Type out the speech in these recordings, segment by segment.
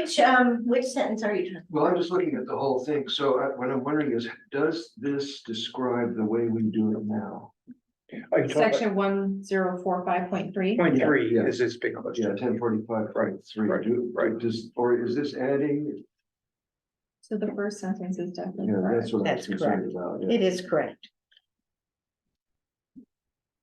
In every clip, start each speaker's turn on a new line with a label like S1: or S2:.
S1: Which, um, which sentence are you talking?
S2: Well, I'm just looking at the whole thing, so uh, what I'm wondering is, does this describe the way we do it now?
S3: Are you talking
S4: Section one zero four five point three.
S3: about point three
S2: Yeah.
S3: is this big
S2: Yeah,
S3: question?
S2: ten forty-five point three,
S3: Right,
S2: do,
S3: right.
S2: does, or is this adding?
S4: So the first sentence is definitely
S2: Yeah,
S4: correct.
S2: that's what I
S1: That's
S2: was concerned about. yeah.
S1: It is correct.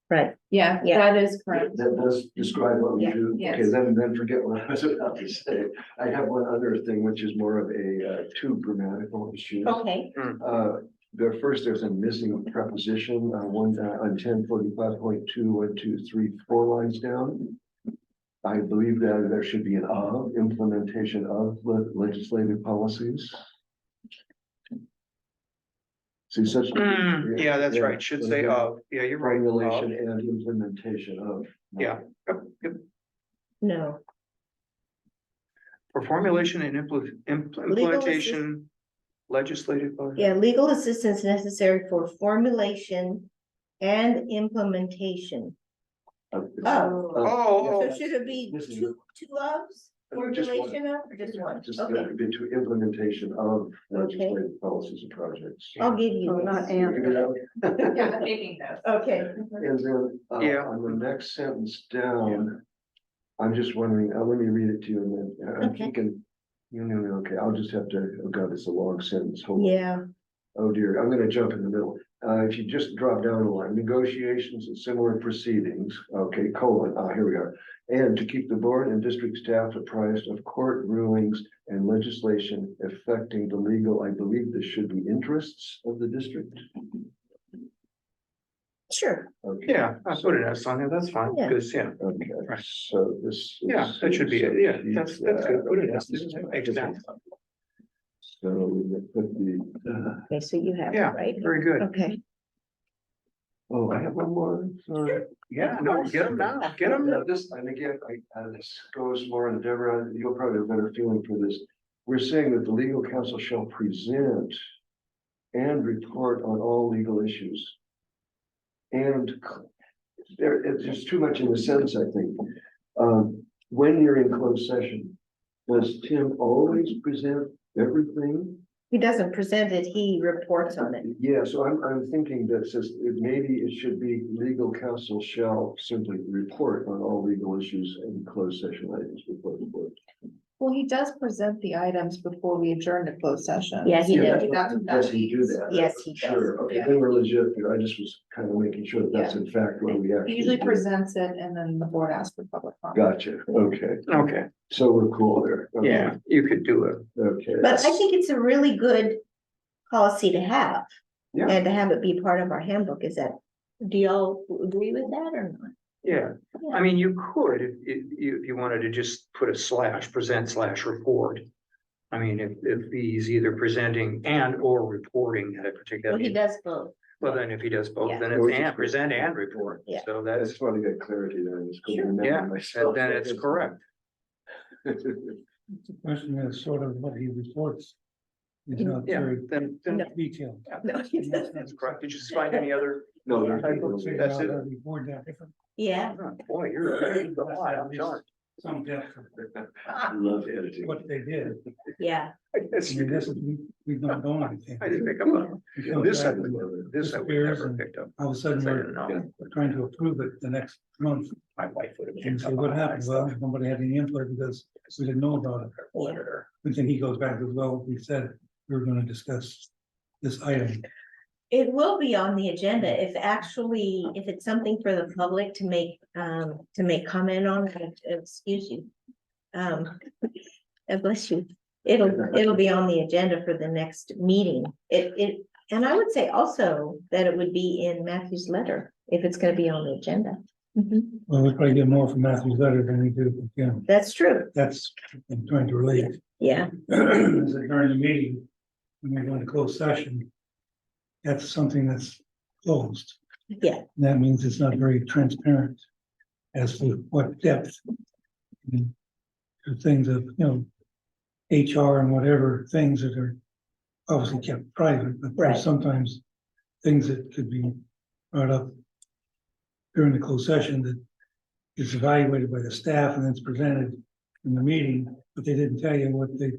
S1: Right,
S4: Yeah,
S1: Yeah.
S4: that is correct.
S2: That does describe what we
S4: Yeah,
S2: do,
S4: yes.
S2: okay, then, then forget what I was about to say. I have one other thing, which is more of a, uh, two grammatical issue.
S1: okay,
S2: Uh, there first, there's a missing preposition on one, uh, on ten forty-five point two, one, two, three, four lines down. I believe that there should be an of, implementation of le- legislative policies. See such.
S1: Hmm.
S3: Mm, Yeah, that's
S2: Yeah.
S3: right. Should say of. Yeah, you're right.
S2: Regulation
S3: Of.
S2: and implementation of.
S3: Yeah. Yep, yep.
S1: no,
S3: For formulation and impl- impl-
S1: Legal
S3: implementation legislative. body.
S1: yeah, legal assistance necessary for formulation and implementation.
S2: Of-
S1: Oh.
S2: of-
S3: Oh,
S1: So
S3: oh.
S1: should it be
S2: This is-
S1: two, two ofs,
S2: Just one.
S1: formulation of, or just one?
S2: Just
S1: Okay,
S2: that, into implementation of legislative policies and projects.
S1: I'll give you.
S4: Oh, not
S1: this.
S4: and.
S2: You know?
S4: Yeah, taking
S1: Okay,
S2: And then, uh,
S3: Yeah.
S2: on the next sentence down, I'm just wondering, uh, let me read it to you and then, uh, I'm
S1: Okay.
S2: thinking. You know, okay, I'll just have to, oh god, it's a long sentence, hold on.
S1: yeah,
S2: oh dear, I'm gonna jump in the middle. Uh, if you just drop down a line, negotiations and similar proceedings, okay, colon, ah, here we are. And to keep the board and district staff apprised of court rulings and legislation affecting the legal, I believe this should be interests of the district.
S1: sure,
S2: Okay.
S3: Yeah, I put an S on there. That's fine.
S1: Yeah.
S3: Because, yeah,
S2: Okay,
S3: Right.
S2: so this.
S3: Yeah,
S2: is-
S3: that should be it. Yeah,
S2: so
S3: that's- that's good. Put it as-
S2: these, uh,
S3: exactly.
S2: So we would put the, uh,
S1: okay, so you have it,
S3: Yeah.
S1: right?
S3: very good.
S1: Okay,
S2: oh, I have one more, sorry.
S3: Yeah, no, get them now. Get them.
S2: Now, This, and again, I, uh, this goes more to Deborah, you'll probably have a better feeling for this. We're saying that the legal counsel shall present and report on all legal issues. And c- there, it's just too much in the sentence, I think. Um, when you're in closed session, does Tim always present everything?
S1: he doesn't present it, he reports on it.
S2: Yeah, so I'm, I'm thinking that says, it- maybe it should be legal counsel shall simply report on all legal issues and closed session items before the board.
S4: Well, he does present the items before we adjourn to closed session.
S1: Yeah, he
S2: Yeah,
S1: does.
S2: that's
S4: That's
S2: what-
S4: what
S2: Does he do
S4: means.
S2: that?
S1: Yes, he does.
S2: Sure, okay,
S4: Yeah.
S2: then we're legit, here. I just was kind of making sure that that's in fact what we
S4: He
S2: actually.
S4: usually
S2: do.
S4: presents it and then the board asks for public comment.
S2: Gotcha, okay,
S3: Okay,
S2: so we're cool there. Okay,
S3: yeah, you could do it.
S2: Okay.
S1: But I think it's a really good policy to have.
S2: Yeah.
S1: And to have it be part of our handbook, is that, do y'all agree with that or not?
S3: Yeah, I mean, you could, if, if you, if you wanted to just put a slash, present slash report. I mean, if, if he's either presenting and or reporting at a particular,
S1: Well, he does both.
S3: well, then if he does both,
S1: Yeah.
S3: then
S2: Or
S3: it's
S2: just-
S3: and, present and report.
S1: Yeah.
S3: So
S2: I just
S3: that's,
S2: want to get clarity there, it's good to
S1: Sure.
S3: Yeah,
S2: remember myself.
S3: then it's correct.
S5: The question is sort of what he reports. It's not
S3: Yeah,
S5: very
S3: then, then,
S1: No.
S5: detailed.
S1: No, he
S5: Yeah.
S1: doesn't.
S3: that's correct. Did you find any other?
S2: No,
S3: Yeah, I don't
S2: there's.
S3: see
S5: Figure
S3: that's
S5: out
S3: it.
S5: how to report that different-
S1: Yeah,
S3: Oh, Boy, you're, you're a lot, I'm darned.
S5: Some depth of
S2: I Love editing.
S5: what they did.
S1: yeah,
S3: I guess
S5: I
S3: you
S5: mean, this
S3: did.
S5: is, we, we've not done anything.
S3: I didn't pick up on, this I would, this I would
S5: Disappears
S3: never
S5: and-
S3: picked up.
S5: All of a
S3: I
S5: sudden,
S3: didn't
S5: we're
S3: know.
S5: trying to approve it the next month.
S3: My wife would have
S5: And
S3: picked
S5: so
S3: up. on
S5: what
S3: that
S5: happened? Well,
S3: stuff.
S5: nobody had any input because we didn't know about it.
S3: Auditor.
S5: And then he goes back as well. We said we were gonna discuss this item.
S1: it will be on the agenda if actually, if it's something for the public to make, um, to make comment on, uh, excuse you. Um, uh, bless you, it'll, it'll be on the agenda for the next meeting. It, it, and I would say also that it would be in Matthew's letter, if it's gonna be on the agenda. Mhm.
S5: Well, we probably get more from Matthew's letter than we do from Kim.
S1: That's true,
S5: That's, I'm trying to relate.
S1: yeah,
S5: is that during the meeting, when you're going to close session, that's something that's closed.
S1: yeah,
S5: And That means it's not very transparent as to what depth. and the Things of, you know, HR and whatever, things that are obviously kept private, but
S1: Right.
S5: there's sometimes things that could be brought up during the closed session that is evaluated by the staff and it's presented in the meeting, but they didn't tell you what they